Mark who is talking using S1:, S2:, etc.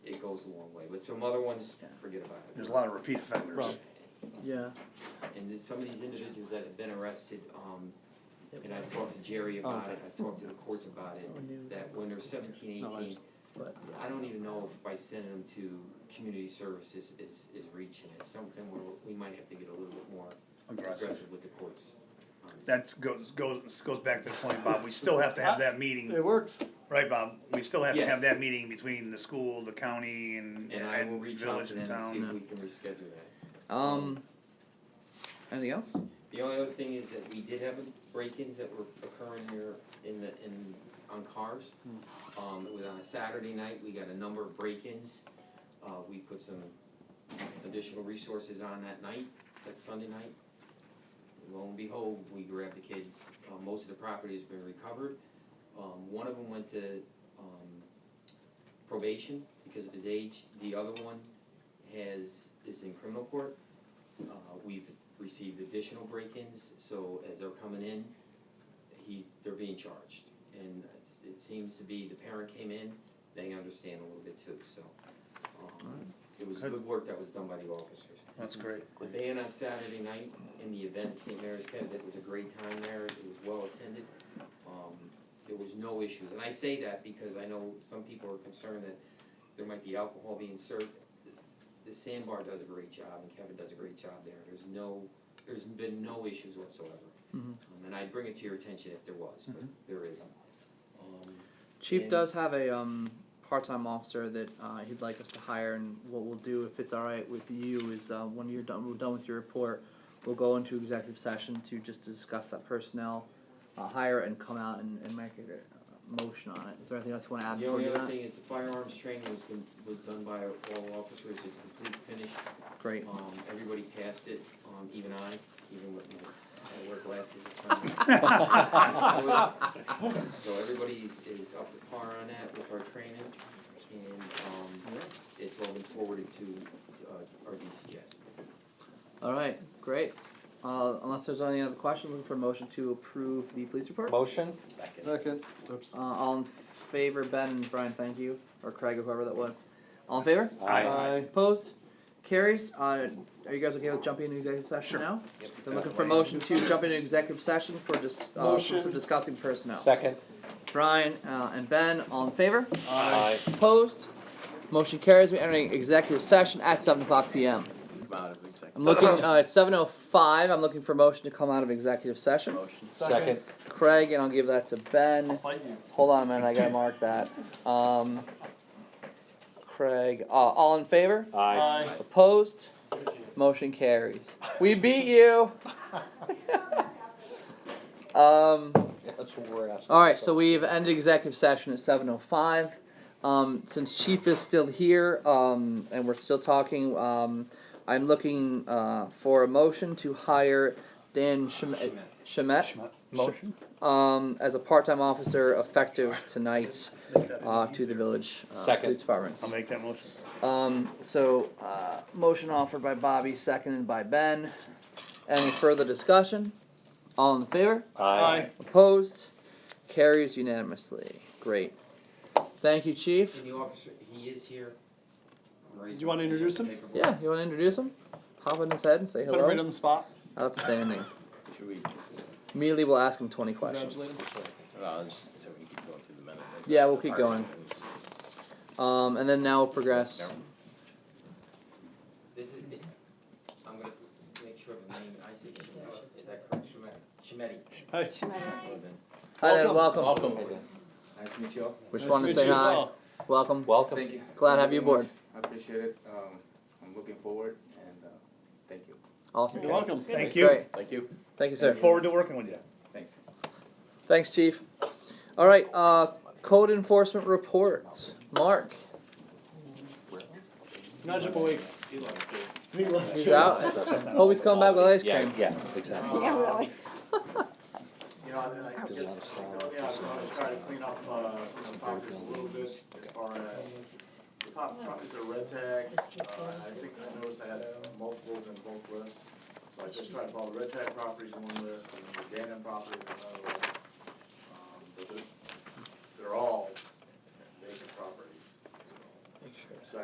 S1: goes a long way, but some other ones,
S2: Yeah.
S1: forget about it.
S3: There's a lot of repeat offenders.
S4: Rob.
S2: Yeah.
S1: And then some of these individuals that have been arrested, um,
S2: it
S1: and I've
S2: was,
S1: talked to Jerry
S3: Oh.
S1: about
S4: Okay.
S1: it, I've talked to the courts about
S2: So
S1: it,
S2: new.
S1: that when they're seventeen,
S4: No, I
S1: eighteen,
S2: But,
S1: I don't even know if by sending them to community services is, is reaching it, something where we might have to get a little bit more
S3: Aggressive.
S1: aggressive with the courts. on it.
S3: That goes, goes, goes back to the point, Bob, we still have to have that meeting,
S4: It works.
S3: right, Bob? We still have to have
S1: Yes.
S3: that meeting between the school, the county, and,
S1: And I will
S3: and
S1: reach out
S3: village
S1: to
S3: and
S1: them and see
S3: town.
S1: if we can reschedule that.
S2: um, anything else?
S1: The only other thing is that we did have break-ins that were occurring here in the, in, on cars. Um, it was on a Saturday night, we got a number of break-ins, uh, we put some additional resources on that night, that Sunday night. Lo and behold, we grabbed the kids, uh, most of the property has been recovered. Um, one of them went to, um, probation because of his age, the other one has, is in criminal court. Uh, we've received additional break-ins, so as they're coming in, he's, they're being charged. And it's- it seems to be, the parent came in, they understand a little bit too, so. um, It was good work that was done by the officers.
S3: That's great.
S1: The band on Saturday night in the event at St. Mary's Kev, it was a great time there, it was well attended. Um, there was no issues, and I say that because I know some people are concerned that there might be alcohol being served. The sandbar does a great job and Kevin does a great job there, there's no, there's been no issues whatsoever.
S2: Mhm.
S1: Um, And I'd bring it to your attention if there was, but there isn't. Um,
S2: Chief
S1: And-
S2: does have a um, part-time officer that uh, he'd like us to hire, and what we'll do if it's all right with you is uh, when you're done, we're done with your report, we'll go into executive session to just discuss that personnel uh, hire and come out and, and make a uh, motion on it. Is there anything else you want to add
S1: The
S2: before we
S1: only
S2: do
S1: other
S2: that?
S1: thing is the firearms training was, con- was done by all officers, it's complete, finished,
S2: Great.
S1: Um, everybody passed it, um, even I, even with my, I wear glasses this time. So everybody is, is up to par on that with our training, and, um, it's all been forwarded to, uh, our DCS.
S2: All right. Great. Uh, unless there's any other questions, looking for a motion to approve the police report.
S5: Motion?
S4: Second. Oops.
S2: Uh, all in favor, Ben and Brian, thank you, or Craig or whoever that was. All in favor?
S3: Aye.
S2: Opposed? Carries. Uh, are you guys okay with jumping into executive session now? I'm looking for a motion to jump into executive session for just, uh, for some
S4: Motion.
S2: discussing personnel.
S5: Second?
S2: Brian, uh, and Ben, all in favor?
S5: Aye.
S2: Opposed? Motion carries. We're entering executive session at seven o'clock PM. I'm looking, uh, seven oh five. I'm looking for a motion to come out of executive session.
S5: Second?
S2: Craig, and I'll give that to Ben. Hold on a minute, I gotta mark that. Um, Craig, uh, all in favor?
S5: Aye.
S2: Opposed? Motion carries. We beat you. Um,
S5: That's what we're asking.
S2: alright, so we've ended executive session at seven oh five. Um, since Chief is still here, um, and we're still talking, um, I'm looking, uh, for a motion to hire Dan Shemet, Shemet?
S5: Motion?
S2: um, as a part-time officer effective tonight, uh, to the village, uh,
S5: Second.
S2: police departments.
S3: I'll make that motion.
S2: Um, so, uh, motion offered by Bobby, seconded by Ben. Any further discussion? All in favor?
S5: Aye.
S2: Opposed? Carries unanimously. Great. Thank you, chief.
S1: And the officer, he is here. I'm raising
S4: You wanna
S1: my hand,
S4: introduce
S1: I'm
S4: him?
S1: capable.
S2: Yeah, you wanna introduce him? Hop on his head and say
S4: Put him right on
S2: hello?
S4: the spot.
S2: Outstanding.
S6: Should we,
S2: Immediately we'll ask him twenty questions.
S4: Congratulations.
S6: well, uh, just so we can keep going through the minute. like,
S2: Yeah, we'll keep
S6: our
S2: going.
S6: names.
S2: Um, and then now we'll progress.
S6: Never-
S1: This is, the- I'm gonna make sure the name, I say Shemet, is that correct, Shemet,
S4: Hey,
S1: Shemetti?
S2: Hi, Ed,
S4: Welcome.
S2: welcome.
S1: Hi, Dan. Nice to meet you all.
S2: We just
S4: nice
S2: wanted to
S4: meet
S2: say
S4: you as
S2: hi.
S4: well.
S2: Welcome.
S5: Welcome.
S7: Thank you.
S2: Glad to have you
S7: Thank
S2: aboard.
S7: very much. I appreciate it. Um, I'm looking forward and, uh, thank you.
S2: Awesome.
S4: You're welcome.
S3: Thank you.
S2: Great.
S6: Thank you.
S2: Thank you, sir.
S3: Look forward to working with you.
S7: Thanks.
S2: Thanks, chief. All right, uh, code enforcement reports. Mark,
S4: Nudge him awake. He left
S2: he's
S4: you.
S2: out. Hope he's coming back with ice
S5: Yeah,
S2: cream.
S5: yeah, exactly.
S8: Yeah, really.
S9: You know, I mean, I
S5: There's
S9: just,
S5: a
S9: you know,
S5: lot of sound.
S9: yeah, I'm gonna try to clean up, uh, some of the properties a little bit as far as the pop, properties are red tag, uh, I think I noticed I had multiples in both lists. So I just tried to follow the red tag properties in one list, Um, and then the Dannon properties in another list.